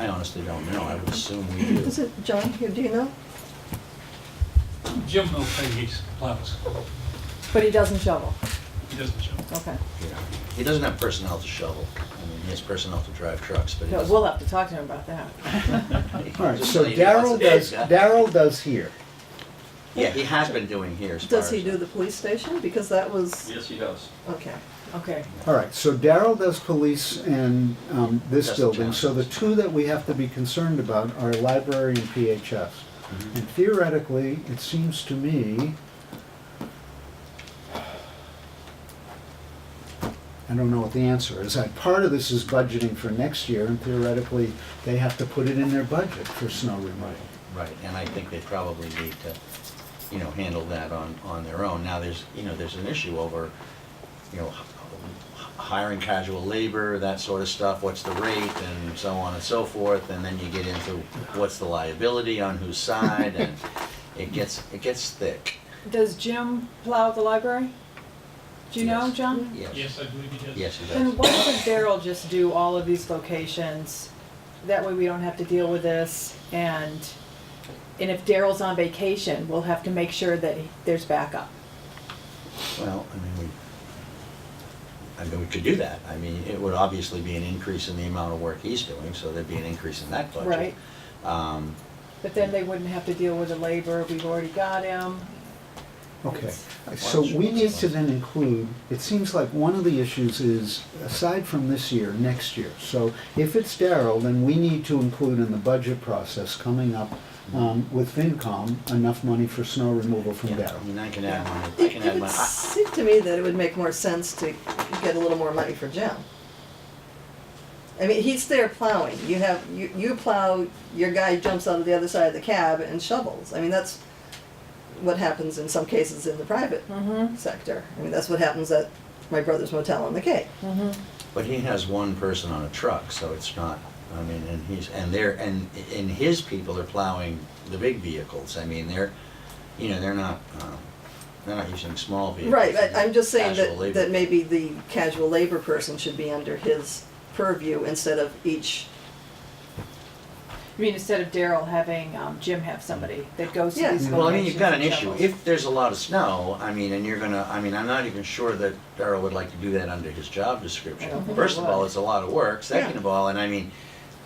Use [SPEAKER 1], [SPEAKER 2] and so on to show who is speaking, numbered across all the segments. [SPEAKER 1] I honestly don't know, I would assume we do.
[SPEAKER 2] Is it John here, do you know?
[SPEAKER 3] Jim will pay his plows.
[SPEAKER 2] But he doesn't shovel,
[SPEAKER 3] He doesn't show.
[SPEAKER 2] okay.
[SPEAKER 1] Yeah. He doesn't have personnel to shovel, I mean, he has personnel to drive trucks, but he
[SPEAKER 2] No,
[SPEAKER 1] doesn't.
[SPEAKER 2] we'll uh, have to talk to him about that.
[SPEAKER 4] All right,
[SPEAKER 1] Just
[SPEAKER 4] so
[SPEAKER 1] you know,
[SPEAKER 4] Daryl
[SPEAKER 1] it's-
[SPEAKER 4] does, Daryl does here.
[SPEAKER 1] Yeah, he has been doing here as
[SPEAKER 2] Does
[SPEAKER 1] far
[SPEAKER 2] he
[SPEAKER 1] as-
[SPEAKER 2] do the police station? Because that was,
[SPEAKER 5] Yes, he does.
[SPEAKER 2] okay, okay.
[SPEAKER 4] All right, so Daryl does police and um, this
[SPEAKER 1] That's the
[SPEAKER 4] building, so the
[SPEAKER 1] challenge.
[SPEAKER 4] two that we have to be concerned about are library and PHS.
[SPEAKER 1] Mm-hmm.
[SPEAKER 4] And theoretically, it seems to me, I don't know what the answer is. I- Part of this is budgeting for next year, and theoretically, they have to put it in their budget for snow removal.
[SPEAKER 1] Right, and I think they probably need to, you know, handle that on, on their own. Now, there's, you know, there's an issue over, you know, h- h- hiring casual labor, that sort of stuff, what's the rate, and so on and so forth, and then you get into what's the liability, on whose side, and it gets, it gets thick,
[SPEAKER 6] Does Jim plow the library? Do you know,
[SPEAKER 1] Yes.
[SPEAKER 6] John?
[SPEAKER 1] yes.
[SPEAKER 3] Yes, I believe he does.
[SPEAKER 1] Yes, it
[SPEAKER 6] Then
[SPEAKER 1] does.
[SPEAKER 6] why doesn't Daryl just do all of these locations? That way we don't have to deal with this and, and if Daryl's on vacation, we'll have to make sure that he- there's backup.
[SPEAKER 1] Well, I mean, we, I mean, we could do that. I mean, it would obviously be an increase in the amount of work he's doing, so there'd be an increase in that budget.
[SPEAKER 6] Right.
[SPEAKER 1] Um,
[SPEAKER 6] But then they wouldn't have to deal with the labor, we've already got him.
[SPEAKER 4] Okay,
[SPEAKER 6] It's-
[SPEAKER 4] so we need to then include, it seems like one of the issues is, aside from this year, next year. So if it's Daryl, then we need to include in the budget process coming up um, with FinCom, enough money for snow removal from
[SPEAKER 1] Yeah, I
[SPEAKER 4] Daryl.
[SPEAKER 1] mean, I can add my, I
[SPEAKER 2] It
[SPEAKER 1] can
[SPEAKER 2] it
[SPEAKER 1] add my,
[SPEAKER 2] would
[SPEAKER 1] I-
[SPEAKER 2] seem to me that it would make more sense to get a little more money for Jim. I mean, he's there plowing, you have, you, you plow, your guy jumps out of the other side of the cab and shovels. I mean, that's what happens in some cases in the private
[SPEAKER 6] Mhm.
[SPEAKER 2] sector. I mean, that's what happens at my brother's motel on the Cape.
[SPEAKER 1] but he has one person on a truck, so it's not, I mean, and he's, and they're, and, and his people are plowing the big vehicles. I mean, they're, you know, they're not, um, they're not using small vehicles.
[SPEAKER 2] Right, but I'm just saying
[SPEAKER 1] Actual
[SPEAKER 2] that,
[SPEAKER 1] labor.
[SPEAKER 2] that maybe the casual labor person should be under his purview instead of each,
[SPEAKER 6] I mean, instead of Daryl having um, Jim have somebody that goes to
[SPEAKER 2] Yeah.
[SPEAKER 6] these locations.
[SPEAKER 1] Well, I mean, you've got an
[SPEAKER 6] and
[SPEAKER 1] issue.
[SPEAKER 6] shovels.
[SPEAKER 1] If there's a lot of snow, I mean, and you're gonna, I mean, I'm not even sure that Darrell would like to do that under his job description.
[SPEAKER 6] I don't think
[SPEAKER 1] First
[SPEAKER 6] he
[SPEAKER 1] of all,
[SPEAKER 6] would.
[SPEAKER 1] it's a lot of work. Second
[SPEAKER 2] Yeah.
[SPEAKER 1] of all, and I mean,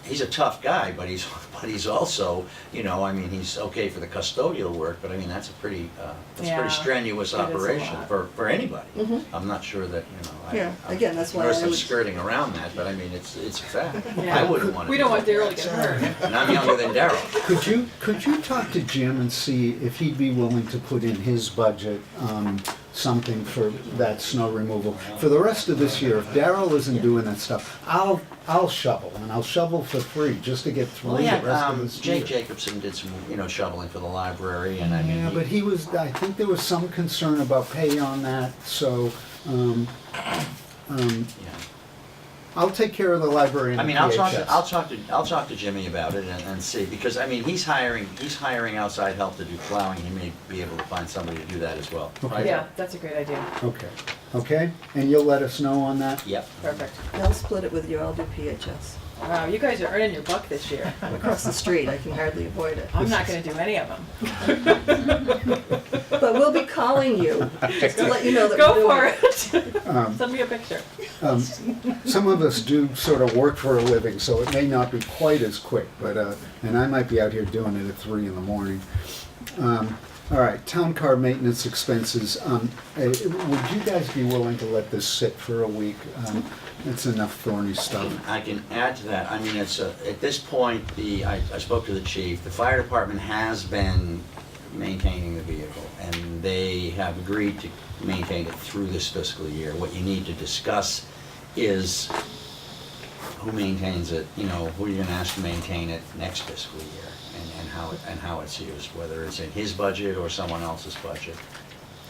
[SPEAKER 1] he's a tough guy, but he's, but he's also, you know, I mean, he's okay for the custodial work, but I mean, that's a pretty, uh, that's a
[SPEAKER 6] Yeah,
[SPEAKER 1] pretty strenuous
[SPEAKER 6] it is a
[SPEAKER 1] operation
[SPEAKER 6] lot. Mm-hmm.
[SPEAKER 1] for, for anybody.
[SPEAKER 2] Mhm.
[SPEAKER 1] I'm not sure that, you know, I.
[SPEAKER 2] Yeah,
[SPEAKER 1] I'm-
[SPEAKER 2] again, that's why
[SPEAKER 1] notice
[SPEAKER 2] I
[SPEAKER 1] I'm
[SPEAKER 2] was-
[SPEAKER 1] skirting around that, but I mean, it's, it's a fact.
[SPEAKER 6] Yeah.
[SPEAKER 1] I wouldn't want to.
[SPEAKER 6] We don't want Daryl to get hurt.
[SPEAKER 1] And I'm younger than Darrell.
[SPEAKER 4] Could you, could you talk to Jim and see if he'd be willing to put in his budget um, something for that snow removal? For the rest of this year, if Daryl isn't doing that stuff, I'll, I'll shovel, and I'll shovel for free, just to get through
[SPEAKER 1] Well,
[SPEAKER 4] the
[SPEAKER 1] yeah,
[SPEAKER 4] rest of
[SPEAKER 1] um,
[SPEAKER 4] this year.
[SPEAKER 1] Jake Jacobson did some, you know, shoveling for the library, and I mean.
[SPEAKER 4] Yeah,
[SPEAKER 1] he-
[SPEAKER 4] but he was, I think there was some concern about pay on that, so, um, um,
[SPEAKER 1] yeah.
[SPEAKER 4] I'll take care of the library and
[SPEAKER 1] I
[SPEAKER 4] the
[SPEAKER 1] mean, I'll talk,
[SPEAKER 4] PHS.
[SPEAKER 1] to I'll talk to, I'll talk to Jimmy about it and, and see, because, I mean, he's hiring, he's hiring outside help to do plowing, he may be able to find somebody to do that as well, right?
[SPEAKER 6] Yeah, that's a great idea.
[SPEAKER 4] Okay, okay, and you'll let us know on that?
[SPEAKER 1] Yep.
[SPEAKER 6] Perfect.
[SPEAKER 2] I'll split it with you, I'll do PHS.
[SPEAKER 6] Wow, you guys are earning your buck this year.
[SPEAKER 2] I'm across the street, I can hardly avoid it.
[SPEAKER 6] I'm not gonna do any of them.
[SPEAKER 2] But we'll be calling you, just to let you know that we're
[SPEAKER 6] Go
[SPEAKER 2] doing
[SPEAKER 6] for
[SPEAKER 2] it.
[SPEAKER 6] it.
[SPEAKER 4] Um,
[SPEAKER 6] Send me a picture.
[SPEAKER 4] um, Some of us do sort of work for a living, so it may not be quite as quick, but, uh, and I might be out here doing it at three in the morning. Um, All right, town car maintenance expenses, um, eh, would you guys be willing to let this sit for a week? Um, It's enough thorny stuff.
[SPEAKER 1] I can add to that, I mean, it's, a- at this point, the, I, I spoke to the chief, the fire department has been maintaining the vehicle, and they have agreed to maintain it through this fiscal year. What you need to discuss is who maintains it, you know, who you're gonna ask to maintain it next fiscal year, and, and how, it- and how it's used, whether it's in his budget or someone else's budget.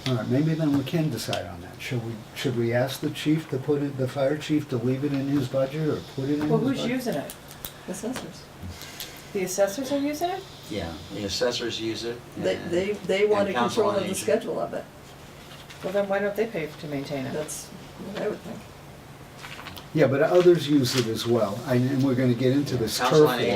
[SPEAKER 4] All right, maybe then we can decide on that. Should we, should we ask the chief to put it, the fire chief to leave it in his budget or put it in his budget?
[SPEAKER 6] Well, who's using it?
[SPEAKER 2] Assessors.
[SPEAKER 6] The assessors are using it?
[SPEAKER 1] Yeah, the assessors use it.
[SPEAKER 2] They,
[SPEAKER 1] and-
[SPEAKER 2] they, they wanted
[SPEAKER 1] and council
[SPEAKER 2] control
[SPEAKER 1] on
[SPEAKER 2] of the
[SPEAKER 1] aging.
[SPEAKER 2] schedule of it,
[SPEAKER 6] Well, then why don't they pay to maintain it?
[SPEAKER 2] that's what I would think.
[SPEAKER 4] Yeah, but others use it as well, and and we're gonna get into this turf
[SPEAKER 1] Council on
[SPEAKER 4] war.